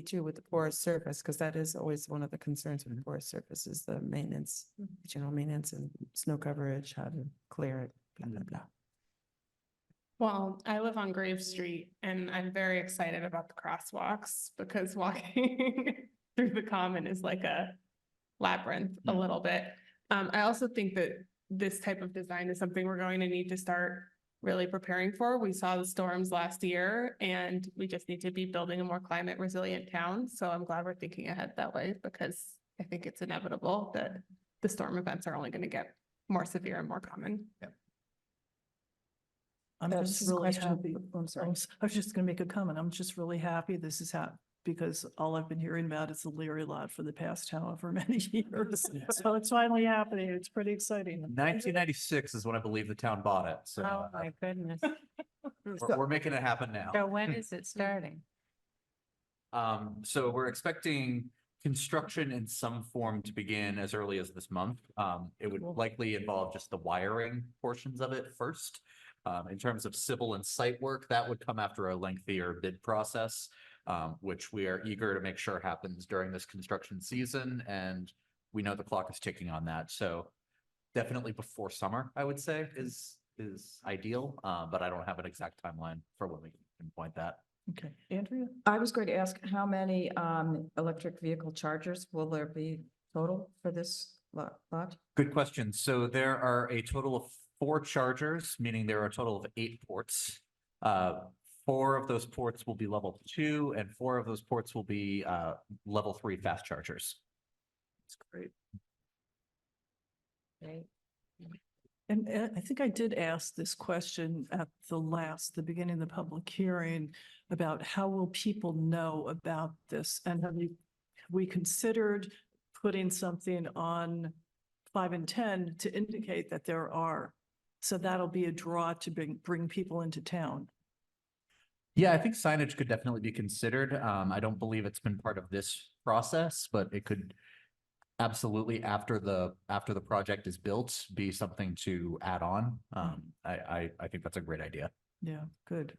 too with the porous surface, because that is always one of the concerns with porous surface is the maintenance, Mm-hmm. general maintenance and snow coverage, how to clear it, blah, blah, blah. Well, I live on Grave Street and I'm very excited about the crosswalks because walking through the common is like a labyrinth a little bit. Um, I also think that this type of design is something we're going to need to start really preparing for. We saw the storms last year and we just need to be building a more climate resilient town. So I'm glad we're thinking ahead that way because I think it's inevitable that the storm events are only going to get more severe and more common. I'm That's just really really happy- happy. I'm I sorry. was I was just gonna make a comment. I'm just really happy this is hap, because all I've been hearing about is the Leary lot for the past however many years. Yeah. So it's finally happening. It's pretty exciting. Nineteen ninety-six is when I believe the town bought it, so Mm-hmm. uh, Oh, my goodness. we're, we're making it happen So now. when is Mm-hmm. it starting? Um, so we're expecting construction in some form to begin as early as this month. Um, it would Cool. likely involve just the wiring portions of it first. Um, in terms of civil and site work, that would come after a lengthier bid process, um, which we are eager to make sure happens during this construction season, and we know the clock is ticking on that, so definitely before summer, I would say, is, is ideal, uh, but I don't have an exact timeline for when we can point that. Okay, Andrea? I was going to ask, how many um electric vehicle chargers will there be total for this lo- lot? Good question. So there are a total of four chargers, meaning there are a total of eight ports. Uh, Four of those ports will be level two and four of those ports will be uh, level three fast chargers. That's great. Right? And uh, I think I did ask this question at the last, the beginning of the public hearing about how will people know about this? And have you, have we considered putting something on five and 10 to indicate that there are? So that'll be a draw to bring, bring people into town. Yeah, I think signage could definitely be considered. Um, I don't believe it's been part of this process, but it could absolutely after the, after the project is built, be something to add on. Um, I, I, I think that's a great idea. Yeah, good.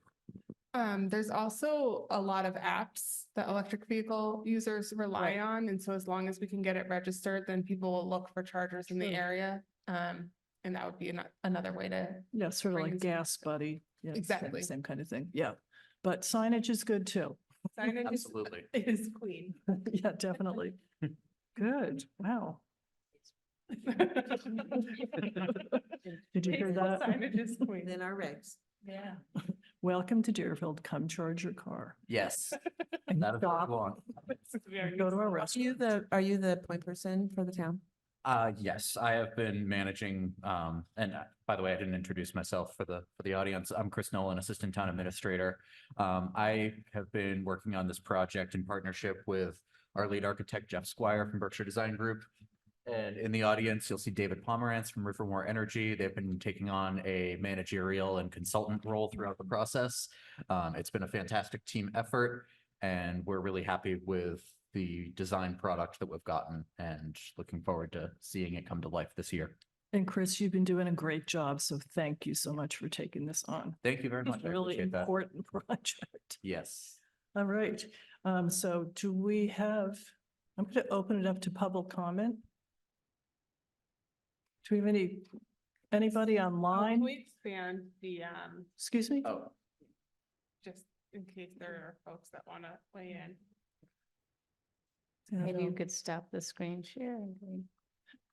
Um, there's also a lot of apps that electric vehicle users rely on, and so as long as we can get it registered, then people will look for chargers in the True. area. Um, and that would be ano- another way to, Yeah, sort of Bring like some- gas buddy. Yeah, same- Exactly. Same kind of thing. Yeah. But signage is good too. signage is- Absolutely. is queen. Yeah, definitely. Good. Wow. Did you hear that? Signage is queen. Then our regs. Yeah. Welcome to Deerfield. Come charge your car. Yes. and That is what stop we want. and Go to our Are you restaurant. the, are you the point person for the town? Uh, yes, I have been managing, um, and uh, by the way, I didn't introduce myself for the, for the audience. I'm Chris Nolan, Assistant Town Administrator. Um, I have been working on this project in partnership with our lead architect Jeff Squire from Berkshire Design Group. And in the audience, you'll see David Pomerantz from Rivermore Energy. They've been taking on a managerial and consultant role throughout the process. Um, it's been a fantastic team effort and we're really happy with the design product that we've gotten and looking forward to seeing it come to life this year. And Chris, you've been doing a great job. So thank you so much for taking this on. Thank you very much. It's a I really appreciate that. important project. Yes. All right. Um, so do we have, I'm going to open it up to public comment. Do we have any, anybody online? We expand the, um, Excuse me? Oh, just in case there are folks that want to weigh in. Yeah, Maybe you no. could stop the screen share, and we-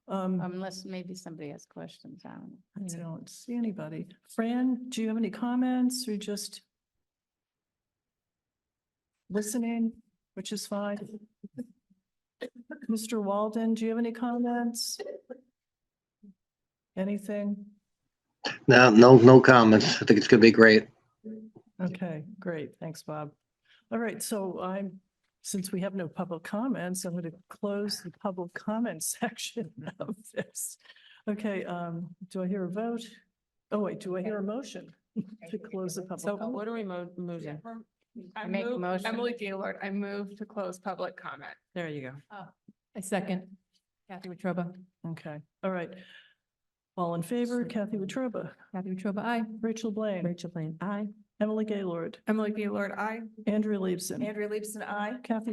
Um, unless maybe somebody has questions on I don't see anybody. Fran, do you have any comments or just listening, which is fine? Mr. Walden, do you have any comments? Anything? No, no, no comments. I think it's gonna be great. Okay, great. Thanks, Bob. All right, so I'm, since we have no public comments, I'm going to close the public comment section of this. Okay, um, do I hear a vote? Oh, wait, do I hear a motion to close the public? So comment? what are we mo- moving? I Make a move- motion. Emily Gaylord, I move to close public comment. There you go. I second. Kathy Wetruba. Okay, all right. All in favor, Kathy Wetruba, Kathy Wetruba, aye. Rachel Blaine, Rachel Blaine, aye. Emily Gaylord, Emily Gaylord, I. Andrew Leibson, Andrea Leibson, I. Kathy